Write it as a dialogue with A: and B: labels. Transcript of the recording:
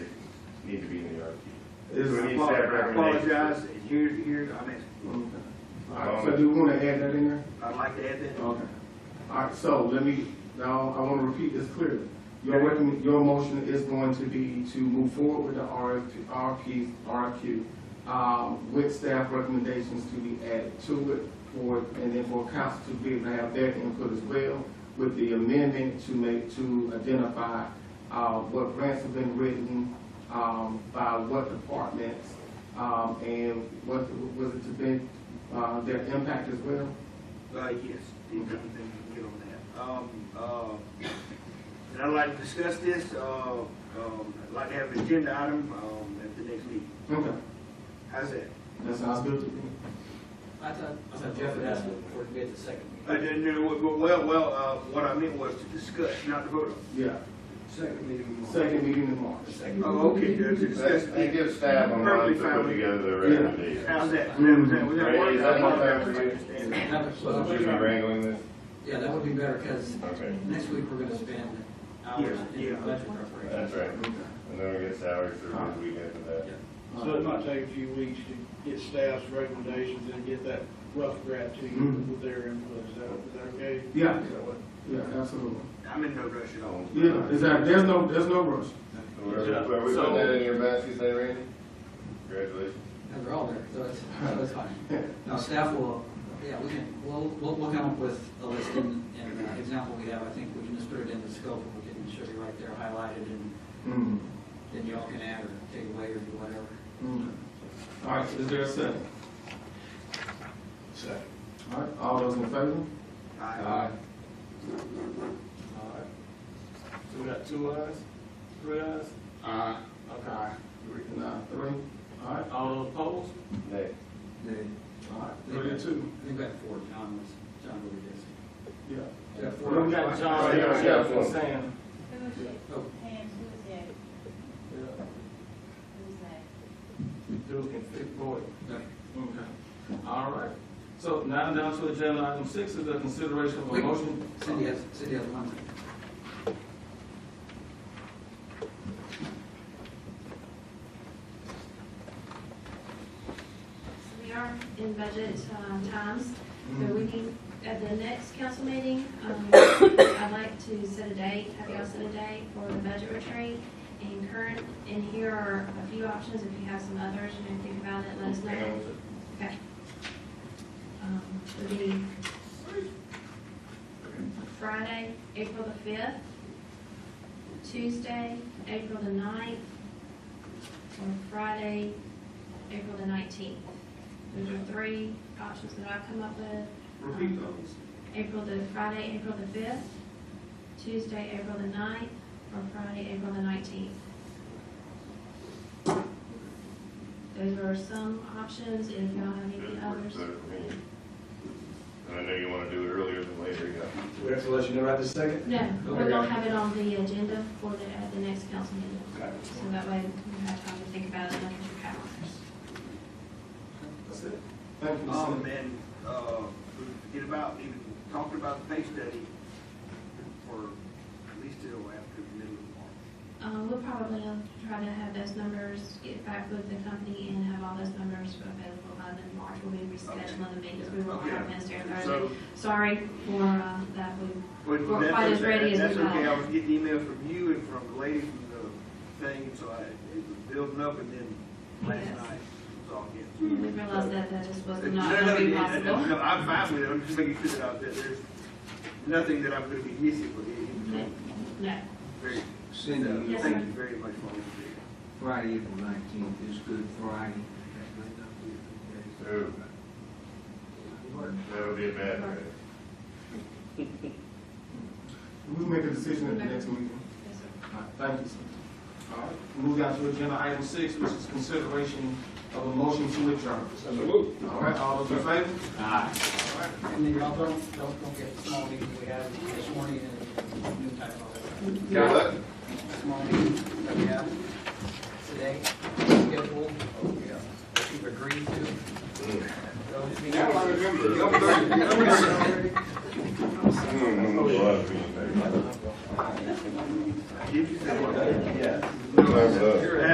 A: This is
B: We need
A: a
B: staff
A: part. I
B: recommendation.
A: apologize, here's, here's, I mean,
C: All right, so do we want to add that in there?
A: I'd like to add that.
C: Okay. All right, so let me, now, I want to repeat this clearly. Your recommend, your motion is going to be to move forward with the RFP, RFP, RFQ, um, with staff recommendations to be added to it for, and then for council to be able to have their input as well with the amendment to make, to identify, uh, what grants have been written, um, by what departments, um, and what, was it to be, uh, their impact as well?
A: Uh, yes, then we can get on that. Um, uh, and I'd like to discuss this, uh, um, I'd like to have an agenda item, um, at the next meeting.
C: Okay.
A: How's that?
C: That sounds good to me.
D: I thought, I thought Jeff had asked for it to be at the second
A: I
D: meeting.
A: didn't know, what- well, well, uh, what I meant was to discuss, not to vote on.
C: Yeah,
A: Second meeting.
C: second meeting in March.
A: Oh, okay, to discuss.
B: They give staff a month to put together their
C: Yeah.
B: recommendation.
A: How's that? Was that, was that
B: Right,
A: one?
B: is that one time for you?
A: Understand.
D: That would-
B: So should we be wrangling this?
D: Yeah, that would be better, because
B: Okay,
D: next week we're gonna spend hours
A: Yeah,
D: in
A: yeah.
D: budget preparation.
B: that's right. And then we get salary survey the week after that.
E: So it might take a few weeks to get staff's recommendations and get that rough draft to you
C: Mhm.
F: Mm-hmm.
E: with their input, is that, is that okay?
C: Yeah, yeah, absolutely.
A: I'm in no rush at all.
C: Yeah, exactly, there's no, there's no rush.
B: So Are are we putting that in your basket, say, Randy? Congratulations.
D: No, they're all there, so it's, so it's fine. Now, staff will, yeah, we can, we'll, we'll, we'll come up with a list and, and uh, example we have, I think we can just put it in the scope, and we can show you right there highlighted, and
C: Mhm.
D: then y'all can add or take away or do whatever.
C: Mhm. All right, is there a second?
E: Second.
C: All right, all those in favor?
A: Aye.
D: Uh,
B: All right. So we got two ayes, three ayes?
C: Aye. Okay. Three, nine, three. All right, all those opposed?
B: Nay.
C: All right, three to two.
D: I think we had four, John was, John really busy.
C: Yeah.
D: Yeah, four.
C: Well, we got
B: John, Jeff, and
C: Sam.
G: Who is it?
D: Oh.
G: Pam, who's that? Who's that?
C: Duke and Fit Boy.
D: Okay.
C: Okay, all right. So now down to agenda item six is the consideration of a
D: Wait.
C: motion.
D: Cindy has, Cindy has one.
H: So We are in budget um, times, so
C: Mhm.
H: we need, at the next council meeting, um, I'd like to set a date, have y'all set a date for the budget retreat. And current, and here are a few options, if you have some others, you may think about it, let us
B: Hang on
H: know.
B: one second.
H: Okay. Um, Would be Friday, April the fifth, Tuesday, April the ninth, or Friday, April the nineteenth. Those are three options that I've come up with.
C: Repeat those.
H: April the, Friday, April the fifth, Tuesday, April the ninth, or Friday, April the nineteenth. Those are some options, if y'all have any
B: Good work,
H: others.
B: sir, for me. And I know you want to do it earlier than later, you got
F: We have to let you know right this second?
H: No, we're gonna have it on the agenda for the, at the next council meeting.
F: Okay.
H: So that way you have time to think about it and look at your calendars.
C: That's it. Thank you,
A: Um,
C: Cindy.
A: and, uh, we forget about, even talking about the pay study for at least till after the middle of March.
H: Um, we'll probably try to have those numbers, get back with the company and have all those numbers available by then March. We'll be rescheduling the meetings, we won't have Wednesday or Thursday.
A: So,
H: Sorry for, uh, that, we,
A: but
H: We're
A: that's
H: quite as ready
A: okay.
H: as we
A: That's okay,
H: are.
A: I was getting emails from you and from the lady from the thing, and so I, it was building up and then last
H: Yes.
A: night, it was all canceled.
H: we realized that that just was
A: No,
H: not
A: no,
H: gonna be
A: no,
H: possible.
A: No, I'm fine with it, I'm just making sure that I- that there's nothing that I'm gonna be missing for the,
H: No,
A: very,
I: Cindy,
A: so,
H: Yes,
A: thank
H: sir.
A: you very much for all you do.
I: Friday, April nineteenth is Good Friday. That might not be a good
B: Ooh. That would be a bad thing.
C: We'll make a decision at the next meeting.
H: yes, sir.
C: All right, Thank you, sir. All right, move down to agenda item six, which is consideration of a motion to adjourn. All right, all those in favor?
D: And then y'all don't, don't, don't get the small meeting we had this morning and new type of,
B: Got what?
D: small meeting that we have today, schedule, oh, that you've agreed to. Those meetings-
B: I remember.
A: Number thirty, number thirty.
B: Mm-hmm.